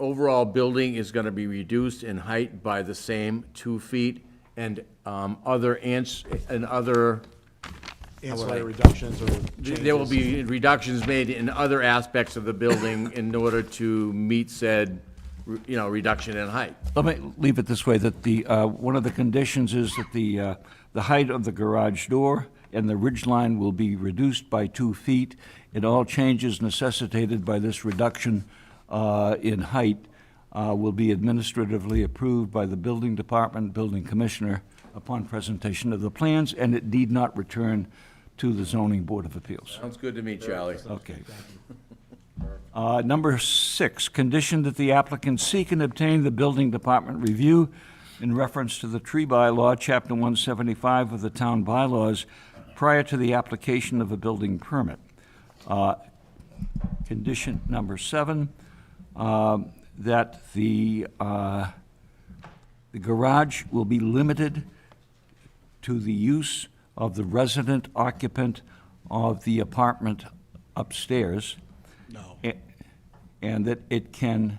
overall building is gonna be reduced in height by the same two feet, and, um, other ants, and other, Ancillary reductions or changes. there will be reductions made in other aspects of the building in order to meet said, you know, reduction in height. Let me leave it this way, that the, uh, one of the conditions is that the, uh, the height of the garage door and the ridge line will be reduced by two feet, and all changes necessitated by this reduction uh, in height uh, will be administratively approved by the building department, building commissioner, upon presentation of the plans, and it need not return to the zoning board of appeals. Sounds good to me, Charlie. Okay. Uh, Number six, condition that the applicant seek and obtain the building department review in reference to the tree bylaw, Chapter 175 of the town bylaws, prior to the application of a building permit. Uh, Condition number seven, um, that the, uh, the garage will be limited to the use of the resident occupant of the apartment upstairs. No. And that it can,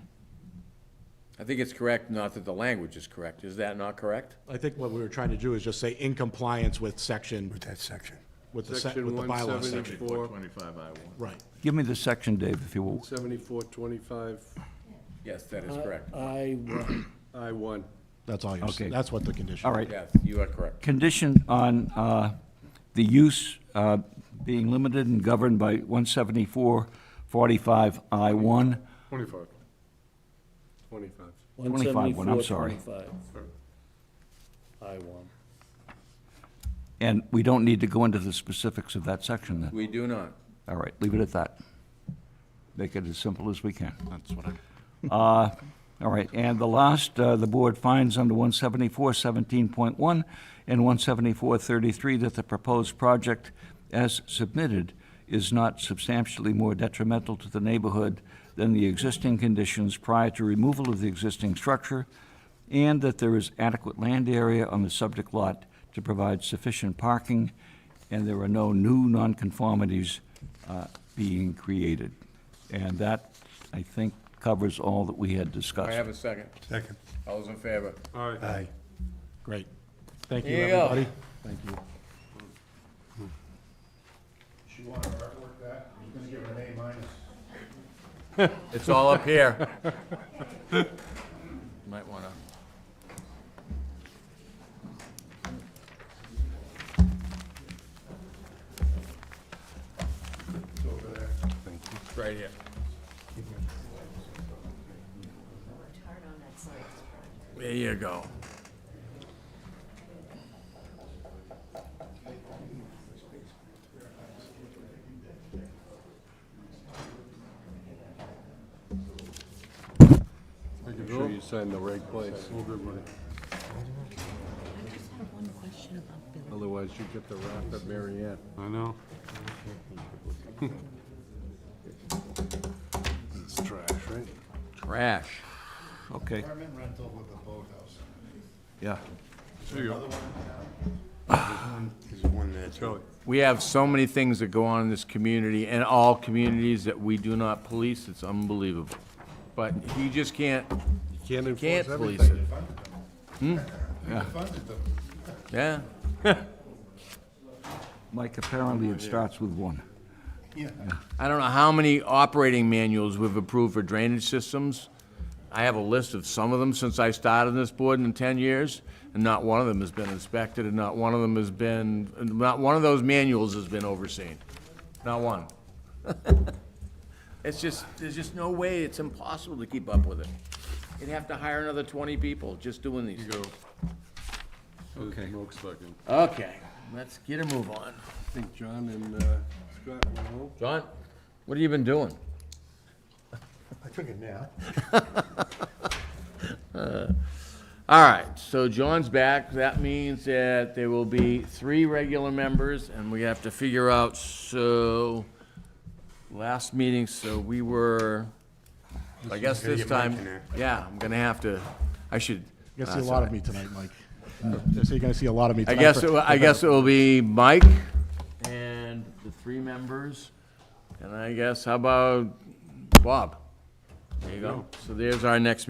I think it's correct, not that the language is correct. Is that not correct? I think what we were trying to do is just say in compliance with section, with that section. with the, sec- Section with the bylaw section. 174, Right. give me the section, Dave, if you will. 7425, Yes, that is correct. I, I-1. That's all you're, s- Okay. that's what the condition. All right. Yes, you are correct. Condition on uh, the use uh, being limited and governed by 174-45I1. 25. 25. 25 one, I'm sorry. 174, 25. I one. And we don't need to go into the specifics of that section then. We do not. All right, leave it at that. Make it as simple as we can. That's what I'm. Uh, All right, and the last, uh, the board finds under 174-17.1 and 174-33 that the proposed project as submitted is not substantially more detrimental to the neighborhood than the existing conditions prior to removal of the existing structure, and that there is adequate land area on the subject lot to provide sufficient parking, and there are no new nonconformities uh, being created. And that, I think, covers all that we had I discussed. have a second. Second. All those in favor? All right. Aye. Great. Thank you, Here you go. everybody. Thank you. She wanted to artwork that, I'm gonna give her an A minus. It's all up here. Might wanna. It's Right here. worked hard on that science project. There you go. Make sure you sign the right place. I just have one question about Billy. Otherwise, you get the rap at Mary Ann. I know. It's trash, right? Trash. Okay, Apartment rental with a boathouse. yeah. There you go. There's one there too. Charlie. We have so many things that go on in this community and all communities that we do not police. It's unbelievable. But you just can't, You can't can't enforce police everything. it. Funded them. Yeah, Mike, apparently it starts with one. I don't know how many operating manuals we've approved for drainage systems. I have a list of some of them since I started on this board in ten years, and not one of them has been inspected, and not one of them has been, not one of those manuals has been overseen. Not one. It's just, there's just no way, it's impossible to keep up with it. You'd have to hire another twenty people just doing these. Go. Okay. Smoke sucking. Okay, let's get a move on. I think John and uh, Scott went home. John, what have you been doing? I took a nap. Uh, All right, so John's back. That means that there will be three regular members, and we have to figure out, so, last meeting, so we were, I guess Gotta this get Mike time, in there. yeah, I'm gonna have to, I should. You're uh, gonna see a lot of me tonight, Mike. So you're gonna see a lot of me I tonight. guess, for- it will- I guess it will be Mike and the three members, and I guess, how about Bob? There you go. So there's our next